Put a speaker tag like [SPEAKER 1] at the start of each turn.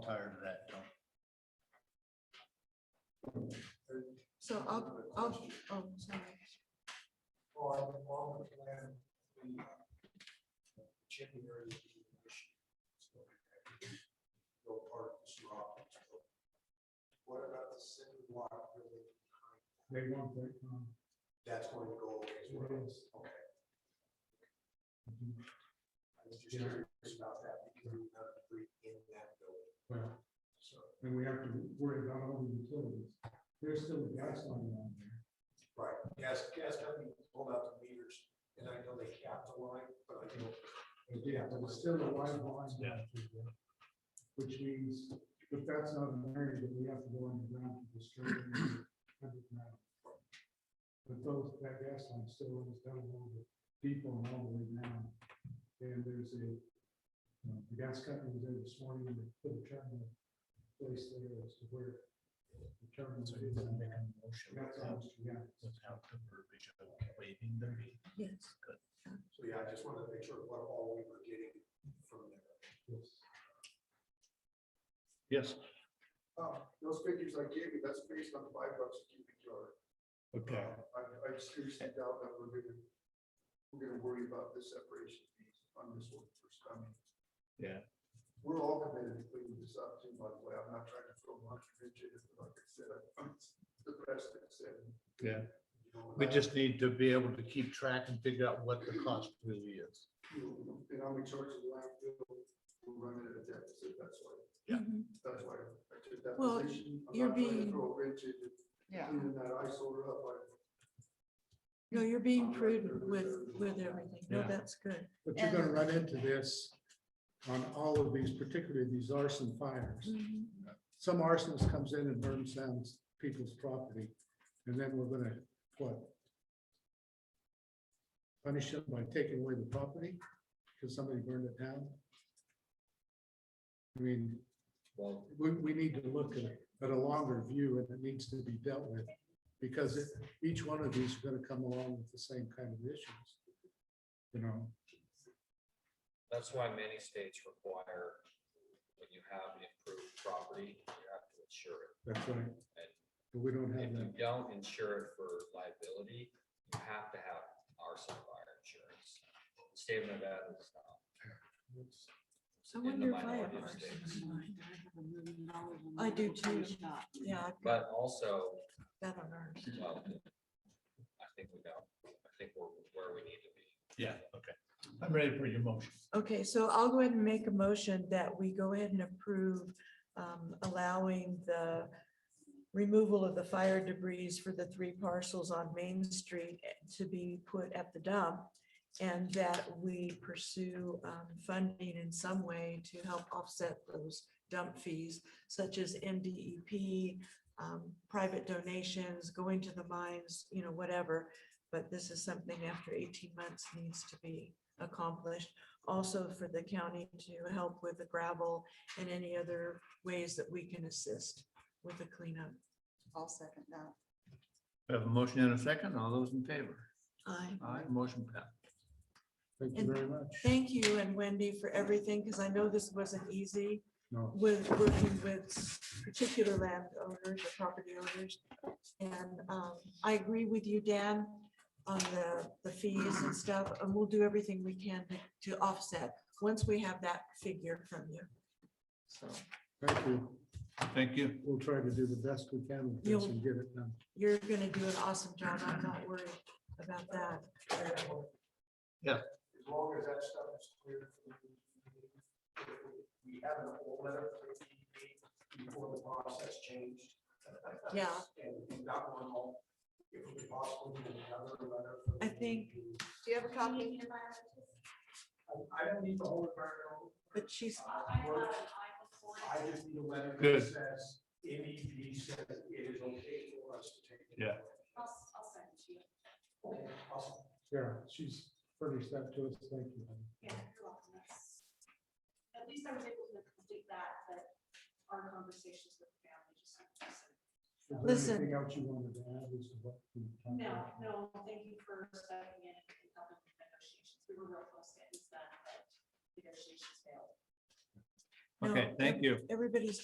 [SPEAKER 1] prior to that, don't.
[SPEAKER 2] So I'll, I'll, oh, sorry.
[SPEAKER 3] on, on the plan, the uh, chipping area is an issue. So, No part of this rock. is built. What about the city block? building?
[SPEAKER 4] They want that, um,
[SPEAKER 3] That's going to go away as well. Okay. I was just curious about that because we're not really in that building.
[SPEAKER 4] well,
[SPEAKER 3] So,
[SPEAKER 4] and we have to worry about all the utilities. There's still a gas line down there.
[SPEAKER 3] right, gas, gas company pulled out the meters and I know they capped the line, but I don't.
[SPEAKER 4] But Yeah, there's still a wide line. down through there, Which means, if that's not an area that we have to go underground to destroy. it, underground. But those, that gas line still runs down over people and all the way down. And there's a, uh, the gas company was there this morning, and they put a terminal place there as to where the terminal is.
[SPEAKER 1] So you're gonna make a motion
[SPEAKER 4] That's
[SPEAKER 1] without,
[SPEAKER 4] almost, yeah.
[SPEAKER 1] without the verbiage of waiving the reading.
[SPEAKER 2] Yes.
[SPEAKER 3] So, yeah, I just wanted to make sure what all we were getting from there.
[SPEAKER 4] yes.
[SPEAKER 1] Yes,
[SPEAKER 3] Uh, those figures I gave you, that's based on five bucks a cubic yard. Um,
[SPEAKER 1] okay.
[SPEAKER 3] I, I seriously doubt that we're gonna, we're gonna worry about the separation fees on this one first. I mean,
[SPEAKER 1] Yeah.
[SPEAKER 3] We're all committed to cleaning this up too, by the way. I'm not trying to throw much rigid, but like I said, I- it's the rest that said.
[SPEAKER 1] Yeah.
[SPEAKER 3] You know,
[SPEAKER 1] We
[SPEAKER 3] and I-
[SPEAKER 1] just need to be able to keep track and figure out what the cost really is.
[SPEAKER 3] And I'm in charge of the landfill. We're running at a deficit. That's why,
[SPEAKER 1] Yeah.
[SPEAKER 2] Mm-hmm.
[SPEAKER 3] that's why I took that
[SPEAKER 2] Well,
[SPEAKER 3] position. I'm
[SPEAKER 2] you're
[SPEAKER 3] not trying to
[SPEAKER 2] being-
[SPEAKER 3] Throw a wrench into
[SPEAKER 5] Yeah.
[SPEAKER 3] cleaning that eyesore up. I-
[SPEAKER 2] No, you're being prudent with, with everything. No,
[SPEAKER 1] Yeah.
[SPEAKER 2] that's good.
[SPEAKER 4] But you're gonna
[SPEAKER 5] And-
[SPEAKER 4] run into this on all of these, particularly these arson fires. Some arsonist comes in and burns down people's property, and then we're gonna, what? Punish them by taking away the property because somebody burned it down? I mean,
[SPEAKER 1] Well,
[SPEAKER 4] we, we need to look at, at a longer view and it needs to be dealt with. Because it- each one of these are gonna come along with the same kind of issues. You know,
[SPEAKER 6] That's why many states require, when you have improved property, you have to insure it.
[SPEAKER 4] that's right.
[SPEAKER 6] And
[SPEAKER 4] But we don't
[SPEAKER 6] if
[SPEAKER 4] have
[SPEAKER 6] you
[SPEAKER 4] that.
[SPEAKER 6] don't insure it for liability, you have to have arson fire insurance. The State of Nevada is not.
[SPEAKER 2] I
[SPEAKER 6] in the
[SPEAKER 2] wonder if I have
[SPEAKER 6] minority of
[SPEAKER 2] ours.
[SPEAKER 6] states.
[SPEAKER 2] I do too. Yeah, I've got
[SPEAKER 6] But also,
[SPEAKER 2] that on ours.
[SPEAKER 6] well, I think we know, I think we're where we need to be.
[SPEAKER 1] yeah, okay. I'm ready for your motion.
[SPEAKER 2] Okay, so I'll go ahead and make a motion that we go ahead and approve um, allowing the removal of the fire debris for the three parcels on Main Street eh, to be put at the dump. And that we pursue um, funding in some way to help offset those dump fees such as MDEP, um, private donations, going to the mines, you know, whatever. But this is something after eighteen months needs to be accomplished also for the county to help with the gravel and any other ways that we can assist with the cleanup.
[SPEAKER 5] I'll second that.
[SPEAKER 1] We have a motion and a second. All those in favor?
[SPEAKER 2] I
[SPEAKER 1] Aye, motion passed.
[SPEAKER 4] Thank
[SPEAKER 2] And-
[SPEAKER 4] you very much.
[SPEAKER 2] thank you and Wendy for everything, because I know this wasn't easy
[SPEAKER 4] No,
[SPEAKER 2] with working with particular landowners or property owners. And um, I agree with you, Dan, on the, the fees and stuff, and we'll do everything we can to- to offset once we have that figure from you. So
[SPEAKER 4] thank you.
[SPEAKER 1] Thank you.
[SPEAKER 4] We'll try to do the best we can with this
[SPEAKER 2] You'll-
[SPEAKER 4] and get it done.
[SPEAKER 2] you're gonna do an awesome job. I'm not worried about that.
[SPEAKER 1] Yeah.
[SPEAKER 3] As long as that stuff is clear. for the community, if We have an old letter from the DEP before the process changed.
[SPEAKER 2] Yeah.
[SPEAKER 3] And and not one all, if it was possible, we would have another letter. from the
[SPEAKER 2] I think-
[SPEAKER 3] DEP.
[SPEAKER 5] Do you have a copy?
[SPEAKER 3] I I don't need the whole environmental.
[SPEAKER 2] But she's,
[SPEAKER 3] work. I just need a letter that
[SPEAKER 1] Good.
[SPEAKER 3] says, MEP says it is okay for us to take. it.
[SPEAKER 1] Yeah.
[SPEAKER 7] I'll, I'll send it to you.
[SPEAKER 3] Okay, awesome.
[SPEAKER 4] Yeah, she's furnished that to us. Thank you. honey.
[SPEAKER 7] Yeah, you're welcome. That's- At least I was able to complete that, but our conversations with the family just.
[SPEAKER 4] Is there
[SPEAKER 2] Listen.
[SPEAKER 4] Anything else you wanted to add as to what? we talked
[SPEAKER 7] No,
[SPEAKER 4] about?
[SPEAKER 7] no, thank you for stepping in and helping with negotiations. We were real close to getting this done, but negotiations failed.
[SPEAKER 2] No.
[SPEAKER 1] Okay, thank you.
[SPEAKER 2] everybody's